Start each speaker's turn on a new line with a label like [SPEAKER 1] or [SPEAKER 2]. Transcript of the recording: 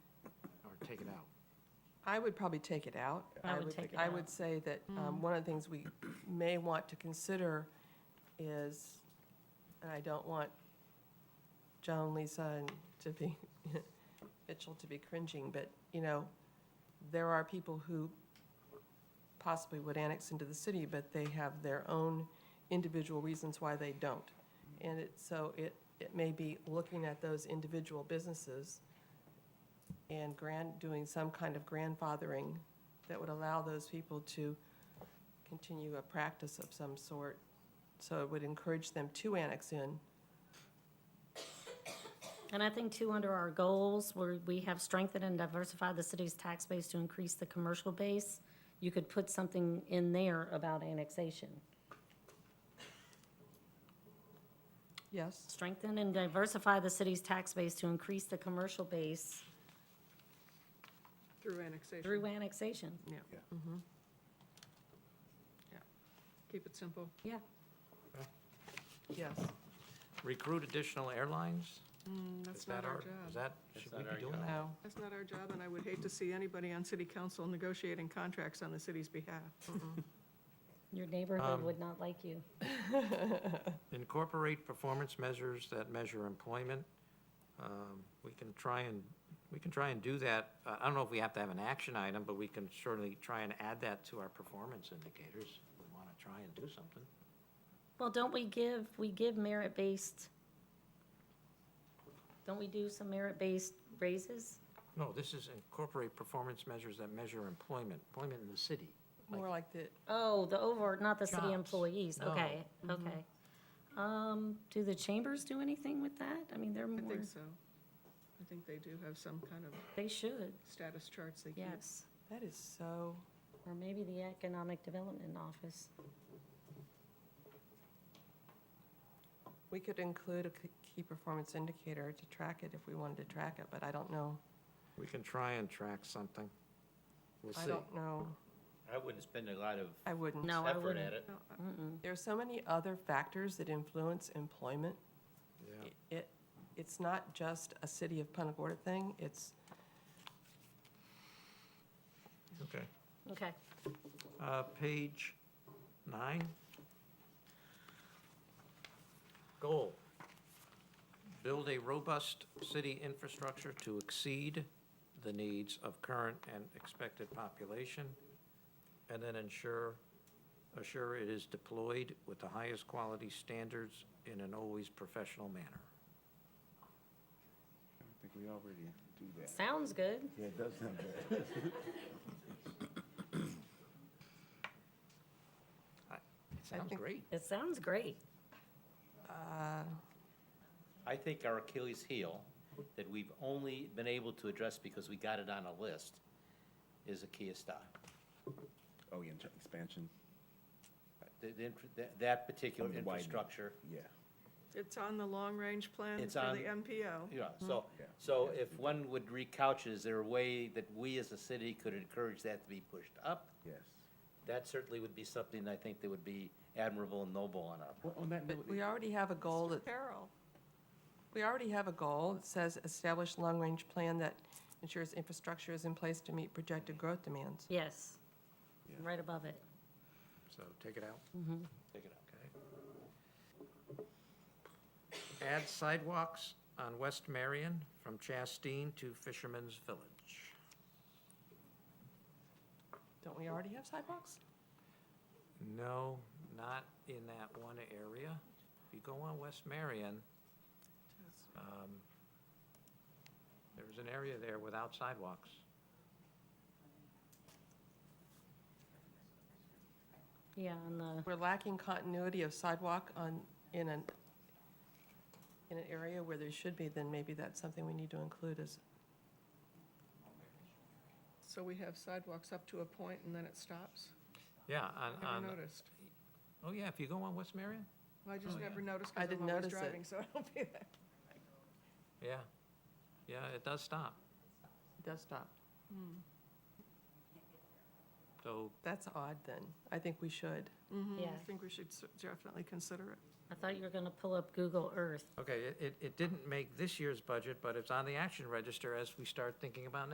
[SPEAKER 1] I would probably take it out.
[SPEAKER 2] I would take it
[SPEAKER 1] I
[SPEAKER 2] out. Mm.
[SPEAKER 1] would say that um, one of the things we may want to consider is, and I don't want Joan, Lisa, and to be, Mitchell to be cringing, but, you know, there are people who possibly would annex into the city, but they have their own individual reasons why they don't. And it, so it, it may be looking at those individual businesses and grand, doing some kind of grandfathering that would allow those people to continue a practice of some sort. So it would encourage them to annex in.
[SPEAKER 2] And I think too, under our goals, where we have strengthened and diversified the city's tax base to increase the commercial base, you could put something in there about annexation.
[SPEAKER 1] Yes,
[SPEAKER 2] Strengthen and diversify the city's tax base to increase the commercial base
[SPEAKER 3] Through annexation.
[SPEAKER 2] through annexation.
[SPEAKER 3] Yeah.
[SPEAKER 4] Yeah.
[SPEAKER 3] Yeah. Keep it simple.
[SPEAKER 2] Yeah,
[SPEAKER 1] yes.
[SPEAKER 5] Recruit additional airlines? Is
[SPEAKER 3] Mm, That's
[SPEAKER 5] that
[SPEAKER 3] not our
[SPEAKER 5] Is
[SPEAKER 3] job.
[SPEAKER 5] that, should we be doing that?
[SPEAKER 1] No,
[SPEAKER 3] That's not our job, and I would hate to see anybody on city council negotiating contracts on the city's behalf.
[SPEAKER 2] your neighborhood
[SPEAKER 5] Um,
[SPEAKER 2] would not like you.
[SPEAKER 5] Incorporate performance measures that measure employment. Um, We can try and, we can try and do that. Uh, I don't know if we have to have an action item, but we can certainly try and add that to our performance indicators. We want to try and do something.
[SPEAKER 2] Well, don't we give, we give merit-based, don't we do some merit-based raises?
[SPEAKER 5] No, this is incorporate performance measures that measure employment, employment in the city.
[SPEAKER 1] more like the,
[SPEAKER 2] Oh, the over, not the city
[SPEAKER 5] Jobs.
[SPEAKER 2] employees,
[SPEAKER 5] No.
[SPEAKER 2] okay, okay. Um, do the chambers do anything with that? I mean, they're
[SPEAKER 3] I
[SPEAKER 2] more,
[SPEAKER 3] think so. I think they do have some kind of
[SPEAKER 2] they should,
[SPEAKER 3] status charts they keep.
[SPEAKER 2] yes.
[SPEAKER 1] that is so,
[SPEAKER 2] Or maybe the Economic Development Office.
[SPEAKER 1] we could include a k- key performance indicator to track it if we wanted to track it, but I don't know.
[SPEAKER 5] We can try and track something. We'll
[SPEAKER 1] I
[SPEAKER 5] see.
[SPEAKER 1] don't know.
[SPEAKER 6] I wouldn't spend a lot of
[SPEAKER 1] I wouldn't.
[SPEAKER 2] No, I
[SPEAKER 6] effort
[SPEAKER 2] wouldn't.
[SPEAKER 6] at it.
[SPEAKER 3] No, I-
[SPEAKER 1] There are so many other factors that influence employment.
[SPEAKER 5] Yeah.
[SPEAKER 1] It, it's not just a city of Punta Gorda thing, it's
[SPEAKER 5] Okay.
[SPEAKER 2] Okay,
[SPEAKER 5] Uh, Page nine. Goal, build a robust city infrastructure to exceed the needs of current and expected population, and then ensure, assure it is deployed with the highest quality standards in an always professional manner.
[SPEAKER 4] I think we already do that.
[SPEAKER 2] sounds good.
[SPEAKER 4] Yeah, it does sound bad.
[SPEAKER 5] It sounds
[SPEAKER 1] think-
[SPEAKER 5] great.
[SPEAKER 2] It sounds great.
[SPEAKER 6] I think our Achilles heel, that we've only been able to address because we got it on a list, is a Kia stop.
[SPEAKER 4] Oh, yeah, tra- expansion,
[SPEAKER 6] The- the infra- that- That particular
[SPEAKER 4] I mean, widening.
[SPEAKER 6] infrastructure.
[SPEAKER 4] yeah.
[SPEAKER 3] It's on the long-range plan
[SPEAKER 6] It's
[SPEAKER 3] for
[SPEAKER 6] on-
[SPEAKER 3] the MPO.
[SPEAKER 6] Yeah, so,
[SPEAKER 4] Yeah.
[SPEAKER 6] so if one would recouch, it, is there a way that we as a city could encourage that to be pushed up?
[SPEAKER 4] Yes.
[SPEAKER 6] That certainly would be something I think that would be admirable and noble on our,
[SPEAKER 4] Well, on that note,
[SPEAKER 1] But we already have a goal that,
[SPEAKER 3] Carol,
[SPEAKER 1] we already have a goal. It says establish long-range plan that ensures infrastructure is in place to meet projected growth demands.
[SPEAKER 2] Yes,
[SPEAKER 4] Yeah.
[SPEAKER 2] right above it.
[SPEAKER 5] So take it out.
[SPEAKER 6] take it out.
[SPEAKER 5] Add sidewalks on West Marion from Chastine to Fisherman's Village.
[SPEAKER 1] Don't we already have sidewalks?
[SPEAKER 5] No, not in that one area. If you go on West Marion, um, there's an area there without sidewalks.
[SPEAKER 2] Yeah, and the,
[SPEAKER 1] We're lacking continuity of sidewalk on, in an, in an area where there should be, then maybe that's something we need to include as,
[SPEAKER 3] so we have sidewalks up to a point and then it stops?
[SPEAKER 5] Yeah, on,
[SPEAKER 3] Never
[SPEAKER 5] on,
[SPEAKER 3] noticed.
[SPEAKER 5] oh yeah, if you go on West Marion,
[SPEAKER 3] Oh, I just never noticed
[SPEAKER 1] I
[SPEAKER 3] because
[SPEAKER 1] didn't
[SPEAKER 3] I'm always
[SPEAKER 1] notice it.
[SPEAKER 3] driving, so I don't be there.
[SPEAKER 5] yeah. Yeah, it does stop.
[SPEAKER 1] desktop.
[SPEAKER 5] So
[SPEAKER 1] That's odd then. I think we should.
[SPEAKER 2] yeah,
[SPEAKER 3] I think we should s- definitely consider it.
[SPEAKER 2] I thought you were gonna pull up Google Earth.
[SPEAKER 5] Okay, it- it, it didn't make this year's budget, but it's on the action register as we start thinking about